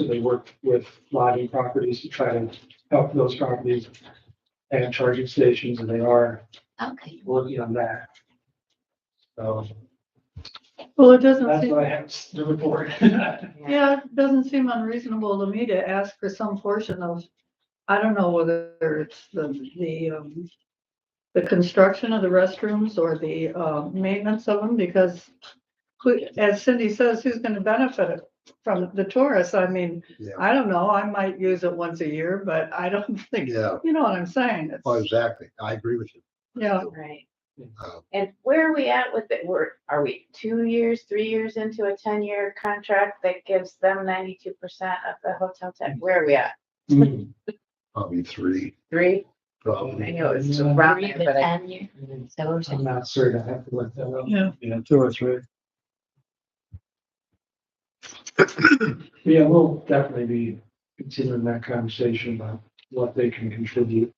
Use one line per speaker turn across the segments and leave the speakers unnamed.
actively worked with lobby properties to try to help those properties have charging stations, and they are
Okay,
working on that. So
Well, it doesn't
that's
seem,
what I have to report.
yeah, it doesn't seem unreasonable to me to ask for some portion of, I don't know whether it's the, the, um, the construction of the restrooms or the, uh, maintenance of them, because who, as Cindy says, who's gonna benefit from the tourists? I mean,
Yeah.
I don't know, I might use it once a year, but I don't think,
Yeah.
you know what I'm saying?
Oh,
It's,
exactly. I agree with you.
yeah,
right.
Uh,
And where are we at with it? We're, are we two years, three years into a ten-year contract that gives them ninety-two percent of the hotel tax? Where are we at?
Mm.
Probably three,
Three? I
probably
know it's
Yeah.
around there, but I,
I'm not certain. I have to look that up.
yeah.
Yeah.
two or three.
Yeah, we'll definitely be continuing that conversation about what they can contribute.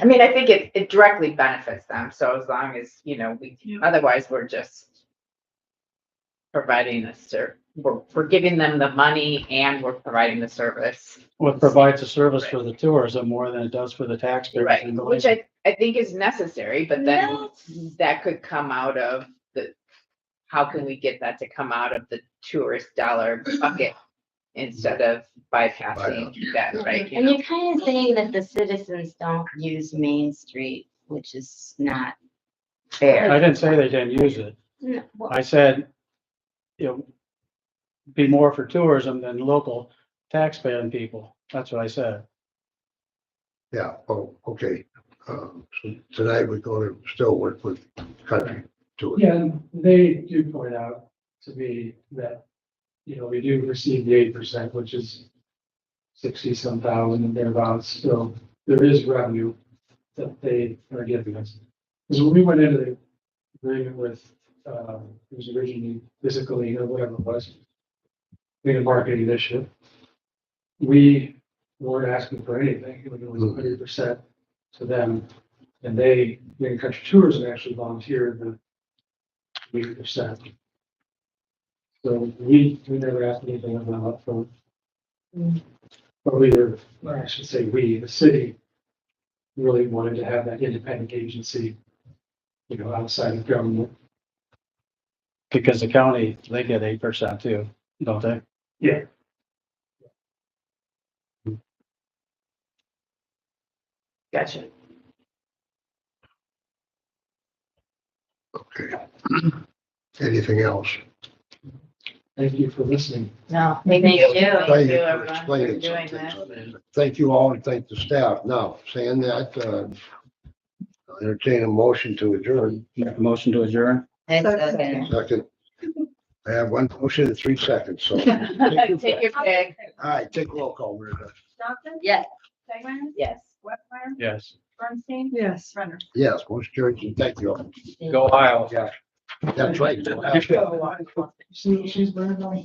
I mean, I think it, it directly benefits them. So as long as, you know, we,
Yeah.
otherwise we're just providing a ser, we're, we're giving them the money and we're providing the service.
Well, it provides a service for the tourism more than it does for the taxpayers.
Right,
in
which
Galatian.
I, I think is necessary, but then that could come out of the, how can we get that to come out of the tourist dollar bucket? Instead of bypassing that, right? you
And
know?
you're kind of saying that the citizens don't use Main Street, which is not
Fair,
I didn't say they didn't use it.
no, well,
I said, you know, be more for tourism than local taxpaying people. That's what I said.
Yeah, oh, okay. Um, so tonight we're gonna still work with country to it.
Yeah, and they do point out to me that, you know, we do receive the eight percent, which is sixty some thousand and thereabouts, so there is revenue that they are giving us. Because when we went into the agreement with, uh, it was originally physically or whatever it was, being a marketing initiative, we weren't asking for anything, it was hundred percent to them. And they, Green Country Tourism actually volunteered the eight percent. So we, we never asked anything about upfront. Mm. But we were, or I should say, we, the city, really wanted to have that independent agency, you know, outside of government.
Because the county, they get eight percent too, don't they?
Yeah.
gotcha.
Okay. Anything else?
Thank you for listening.
No.
Thank you.
Thank you,
for
everyone, for
explaining
doing
some
that.
things. Thank you all and thank the staff. Now, saying that, uh, I'll entertain a motion to adjourn.
Make a Motion to adjourn?
that's
That's-
okay.
Second. I have one motion in three seconds, so.
Take your pick,
All right, take roll call, Myrna.
Johnson?
Yes.
Segman?
yes.
Westmeyer?
Yes.
Bernstein?
Yes.
Renner?
Yes, motion carries. and Thank you all.
Go Isles.
That's right.
She- She's learning on